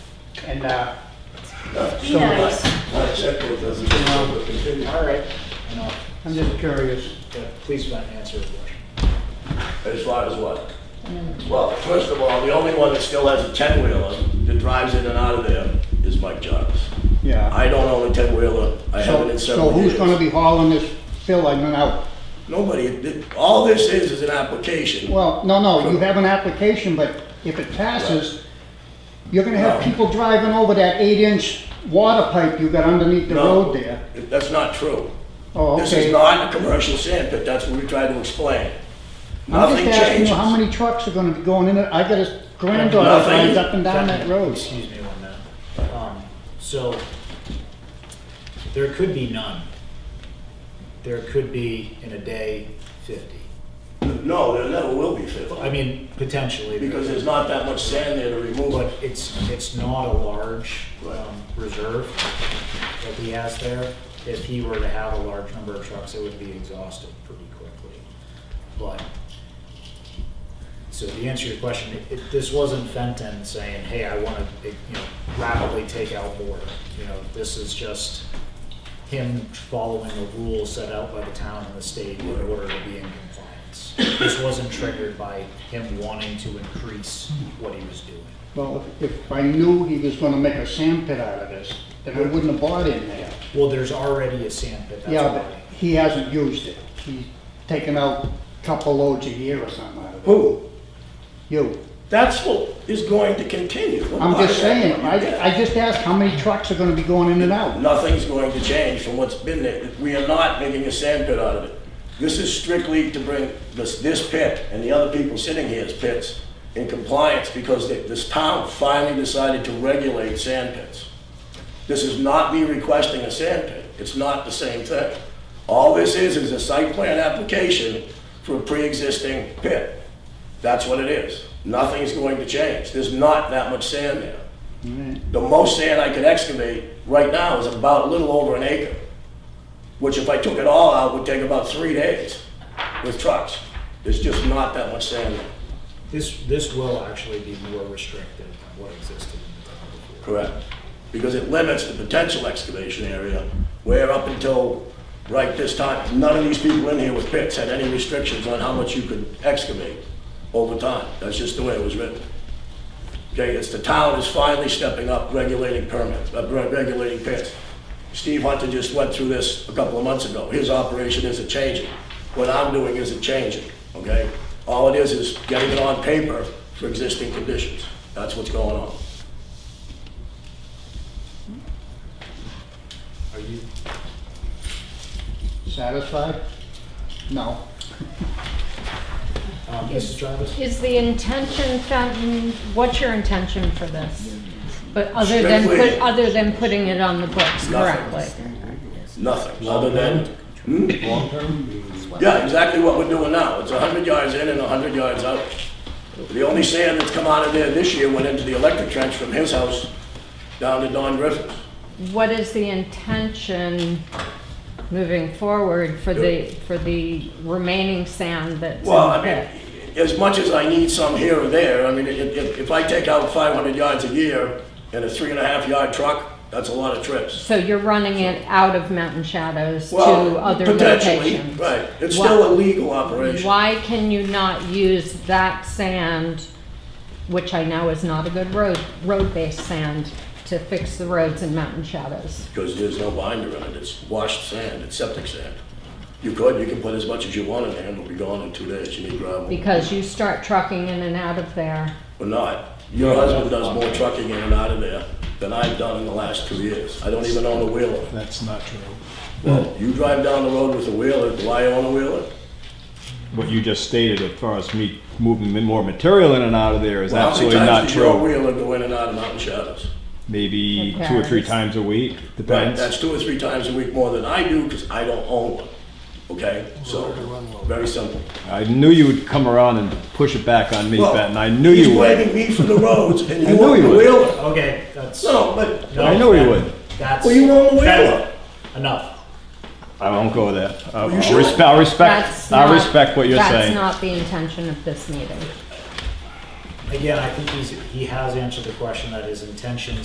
and, uh, Be nice. My checkbook doesn't show, but continue. all right, No, I'm just curious. yeah, please don't answer the question. As far as what? Well, first of all, the only one that still has a ten-wheeler that drives in and out of there is Mike Jarvis. Yeah. I don't own a ten-wheeler, I haven't So, in so several years. who's gonna be hauling this filling out? Nobody, it- all this is, is an application. Well, no, no, you have an application, but if it passes, you're gonna have No. people driving over that eight-inch water pipe you got underneath the No. road there. That's not true. Oh, This is okay. not a commercial sand pit, that's what we tried to explain. I'm Nothing just asking you how changes. many trucks are gonna be going in it. I got a granddaughter Nothing. drives up and down that road. Excuse me one minute. Um, so, there could be none. There could be in a day fifty. No, there never will be I 50, mean, potentially. there because could there's not that much sand there to remove. But it. it's, it's not a large um, reserve that he has there. If he were to have a large number of trucks, it would be exhausted pretty quickly. But, so the answer to your question, it- it- this wasn't Fenton saying, hey, I want to, you know, rapidly take out more. You know, this is just him following the rules set out by the town and the state in order to be in compliance. This wasn't triggered by him wanting to increase what he was doing. Well, if- if I knew he was gonna make a sand pit out of this, then I wouldn't have bought in there. Well, there's already a sand pit, Yeah, that's but why. he hasn't used it. He's taken out a couple loads a year or something out of it. Who? You. That's what is going to continue. I'm just saying, I, I just asked how many trucks are gonna be going in and out. Nothing's going to change from what's been there. We are not making a sand pit out of it. This is strictly to bring this, this pit and the other people sitting here's pits in compliance because the- this town finally decided to regulate sand pits. This is not me requesting a sand pit. It's not the same thing. All this is, is a site plan application for a pre-existing pit. That's what it is. Nothing's going to change. There's not that much sand there. The most sand I could excavate right now is about a little over an acre, which if I took it all out would take about three days with trucks. There's just not that much sand there. This, this will actually be more restricted than what existed in the town before. Correct. Because it limits the potential excavation area, where up until right this time, none of these people in here with pits had any restrictions on how much you could excavate over time. That's just the way it was written. Okay, it's the town is finally stepping up regulating permits, uh, re- regulating pits. Steve Hunter just went through this a couple of months ago. His operation isn't changing. What I'm doing isn't changing, okay? All it is is getting it on paper for existing conditions. That's what's going on. Are you, Satisfied? No. um, Mrs. Jarvis? Is the intention, Fenton, what's your intention for this? But other than, put- Strictly- other than putting it on the books Nothing. correctly? Nothing, other than. hmm? Yeah, exactly what we're doing now. It's hundred yards in and hundred yards out. The only sand that's come out of there this year went into the electric trench from his house down to Don Griffin's. What is the intention moving forward for the, for the remaining sand that's in Well, the I mean, pit? as much as I need some here or there, I mean, if, if- if I take out five hundred yards a year in a three and a half yard truck, that's a lot of trips. So you're running it out of Mountain Shadows to Well, other potentially, locations? Right, it's Why- still a legal operation. Why can you not use that sand, which I know is not a good road, road-based sand, to fix the roads in Mountain Shadows? because there's no binder on it, it's washed sand, it's septic sand. You could, you can put as much as you want in there, and it'll be gone in two days, you need gravel, Because you start trucking in and out of there. or not. Your husband does more trucking in and out of there than I've done in the last two years, I don't even own a wheeler. That's not true. Well, you drive down the road with a wheeler, do I own a wheeler? What you just stated as far as me moving more material in and out of there is Well, how many absolutely not times does your true. wheeler go in and out of Mountain Shadows? Maybe two or three Depends. times a week, Right, depends. that's two or three times a week more than I do, because I don't own one, okay? So, very simple. I knew you would come around and push it back on me, Well, Ben, I knew you He's would. blaming me for the roads, and I you knew own he the would. wheeler. Okay, that's. No, but I know you would. That's. Well, you own the wheel. Enough. I won't go there. I- you I'll should. respe- I'll That's respect, I not- respect what you're That's saying. not the intention of this meeting. Again, I think he's, he has answered the question that his intention